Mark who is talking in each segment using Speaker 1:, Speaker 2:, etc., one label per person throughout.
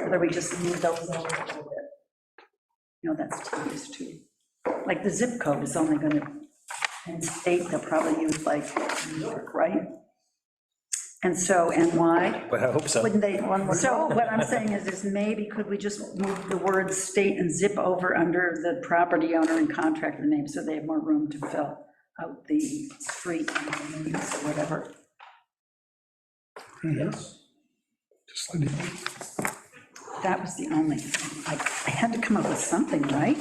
Speaker 1: whether we just move those over a little bit. You know, that's tedious too. Like the zip code is only gonna, and state, they'll probably use like New York, right? And so, and why?
Speaker 2: But I hope so.
Speaker 1: Wouldn't they, so what I'm saying is, is maybe could we just move the word state and zip over under the property owner and contractor name, so they have more room to fill out the street and the names or whatever?
Speaker 3: Yes. Just let it be.
Speaker 1: That was the only, I, I had to come up with something, right?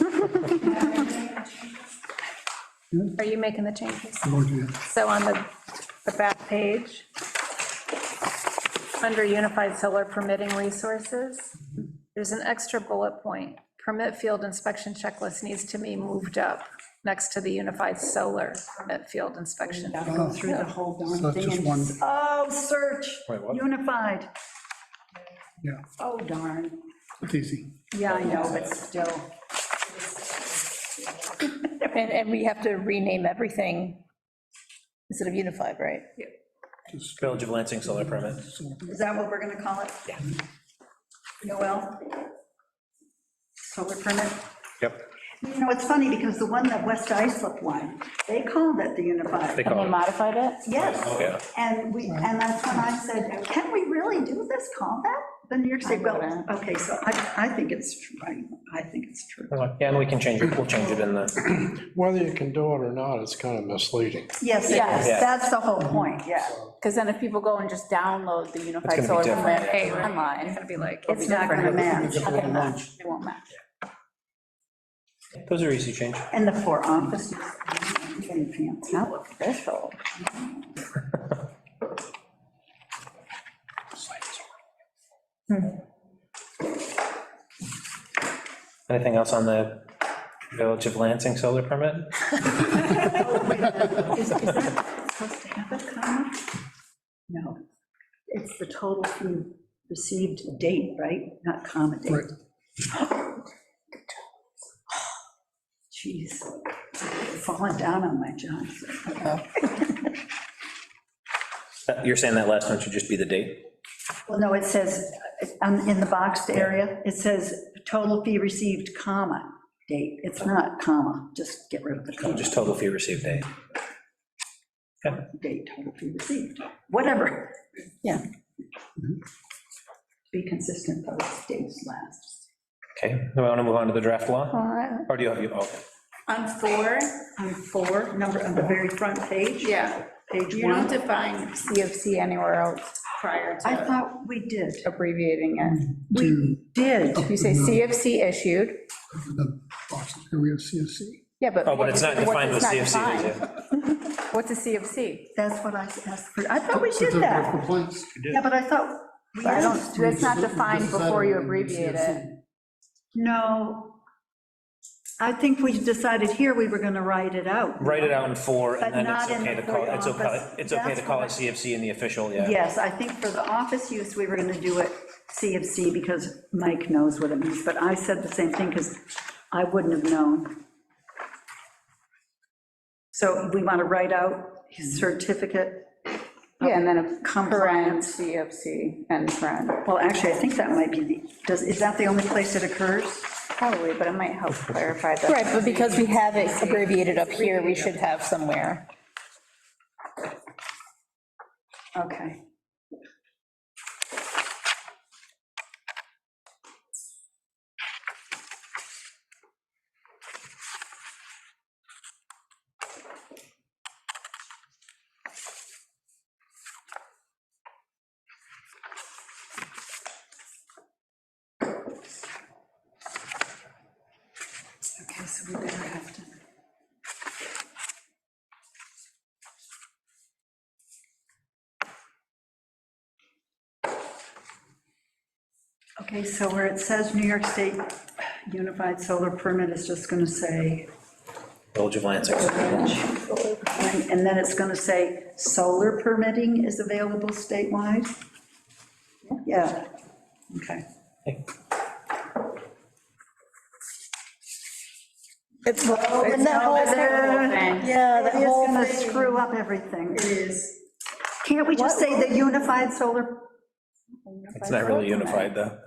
Speaker 4: Are you making the changes?
Speaker 3: I'm going to do
Speaker 4: So on the, the back page, under Unified Solar Permitting Resources, there's an extra bullet point. Permit field inspection checklist needs to be moved up next to the Unified Solar Permit Field Inspection.
Speaker 1: Gotta go through the whole
Speaker 3: So
Speaker 1: darn
Speaker 3: it's
Speaker 1: thing
Speaker 3: just
Speaker 1: and
Speaker 3: one-
Speaker 1: just, oh, search,
Speaker 2: Wait, what?
Speaker 1: unified,
Speaker 3: Yeah,
Speaker 1: oh darn.
Speaker 3: it's easy.
Speaker 1: Yeah, I know, but still,
Speaker 5: And, and we have to rename everything instead of unified, right?
Speaker 3: Just
Speaker 2: Village of Lansing solar permit.
Speaker 3: sort of-
Speaker 1: is that what we're gonna call it? Yeah. Noel? Solar permit?
Speaker 2: Yep.
Speaker 1: You know, it's funny, because the one that West Islip won, they called it the unified.
Speaker 2: They call it.
Speaker 5: modified it?
Speaker 2: Yeah.
Speaker 1: Yes, and we, and that's when I said, can we really do this, call that? The New York State, well,
Speaker 5: wouldn't.
Speaker 1: okay, so I, I think it's, true. I I think it's true.
Speaker 2: Yeah, and we can change it, we'll change it in the,
Speaker 6: Whether you can do it or not, it's kind of misleading.
Speaker 1: Yes,
Speaker 7: Yes.
Speaker 2: Yeah.
Speaker 1: that's the whole point, yeah.
Speaker 7: Because then if people go and just download the
Speaker 2: gonna
Speaker 7: unified
Speaker 2: be
Speaker 7: solar
Speaker 2: different.
Speaker 7: permit
Speaker 4: It's
Speaker 7: online,
Speaker 4: gonna be like,
Speaker 1: It's not going to
Speaker 7: different.
Speaker 1: match.
Speaker 7: how they match, they won't match.
Speaker 2: those are easy change.
Speaker 1: And the four offices. and fancy.
Speaker 7: Official.
Speaker 2: Anything else on the Village of Lansing solar permit?
Speaker 1: Is is that supposed to have a comma? No, it's the total fee received date, right? Not comma date.
Speaker 3: Right.
Speaker 1: Jeez, falling down on my job.
Speaker 2: That- You're saying that last one should just be the date?
Speaker 1: Well, no, it says, um, in the boxed area, it says total fee received, comma, date. It's not comma, just get rid of the
Speaker 2: No,
Speaker 1: comma.
Speaker 2: Oh, Just total fee received date.
Speaker 1: date total fee received, whatever, Mm-hmm. yeah. Be consistent, those dates last.
Speaker 2: Okay, do I want to move on to the draft law?
Speaker 4: uh,
Speaker 2: Or do you have, you, oh,
Speaker 7: On four,
Speaker 1: On four, number on the very front page.
Speaker 7: yeah,
Speaker 1: Page
Speaker 7: you don't
Speaker 1: one.
Speaker 7: define CFC anywhere else prior
Speaker 1: I
Speaker 7: to
Speaker 1: thought we did.
Speaker 7: abbreviating it.
Speaker 1: We did.
Speaker 5: Mm-hmm.
Speaker 7: You say CFC issued,
Speaker 3: The boxes, here we have CSC.
Speaker 7: yeah, but.
Speaker 2: oh, but it's not
Speaker 7: what is-
Speaker 2: defined with
Speaker 7: what's
Speaker 2: CFC. is
Speaker 7: not
Speaker 2: it?
Speaker 7: defined? What's a CFC?
Speaker 1: That's what I asked for. I
Speaker 7: Oh,
Speaker 1: thought we
Speaker 3: It's a
Speaker 1: did
Speaker 3: number of
Speaker 1: that.
Speaker 3: complaints.
Speaker 1: Yeah, but I thought, we
Speaker 7: I don't,
Speaker 1: did.
Speaker 7: that's not
Speaker 3: This is-
Speaker 7: defined
Speaker 3: this is
Speaker 7: before you
Speaker 3: under
Speaker 7: abbreviate it.
Speaker 3: CSC.
Speaker 1: no. I think we decided here we were going to write it out.
Speaker 2: Write it out in four,
Speaker 1: But
Speaker 2: and then it's
Speaker 1: not in
Speaker 2: okay
Speaker 1: the
Speaker 2: to call, it's
Speaker 1: four
Speaker 2: okay,
Speaker 1: office.
Speaker 2: it's okay to
Speaker 1: That's
Speaker 2: call
Speaker 1: what I-
Speaker 2: it CFC in the official, yeah.
Speaker 1: Yes, I think for the office use, we were going to do it CFC because Mike knows what it means, but I said the same thing because I wouldn't have known. So we want to write out his certificate.
Speaker 7: Yeah, and then a paren
Speaker 1: Compliance.
Speaker 7: CFC and paren,
Speaker 1: Well, actually, I think that might be the, does, is that the only place it occurs?
Speaker 7: probably, but it might help clarify that.
Speaker 5: Right, but because we have it abbreviated up here, we should have somewhere.
Speaker 1: Okay. Okay, so we better have to. Okay, so where it says New York State Unified Solar Permit is just going to say,
Speaker 2: Village of Lansing.
Speaker 1: and and then it's going to say, solar permitting is available statewide? Yeah, okay.
Speaker 5: It's, and
Speaker 1: no,
Speaker 5: whole
Speaker 1: it's not
Speaker 5: thing-
Speaker 7: thing.
Speaker 5: Yeah, that
Speaker 1: It is
Speaker 5: whole
Speaker 1: going to
Speaker 5: thing.
Speaker 1: screw up everything.
Speaker 7: is.
Speaker 1: Can't we just say the Unified Solar
Speaker 2: It's not really unified, though.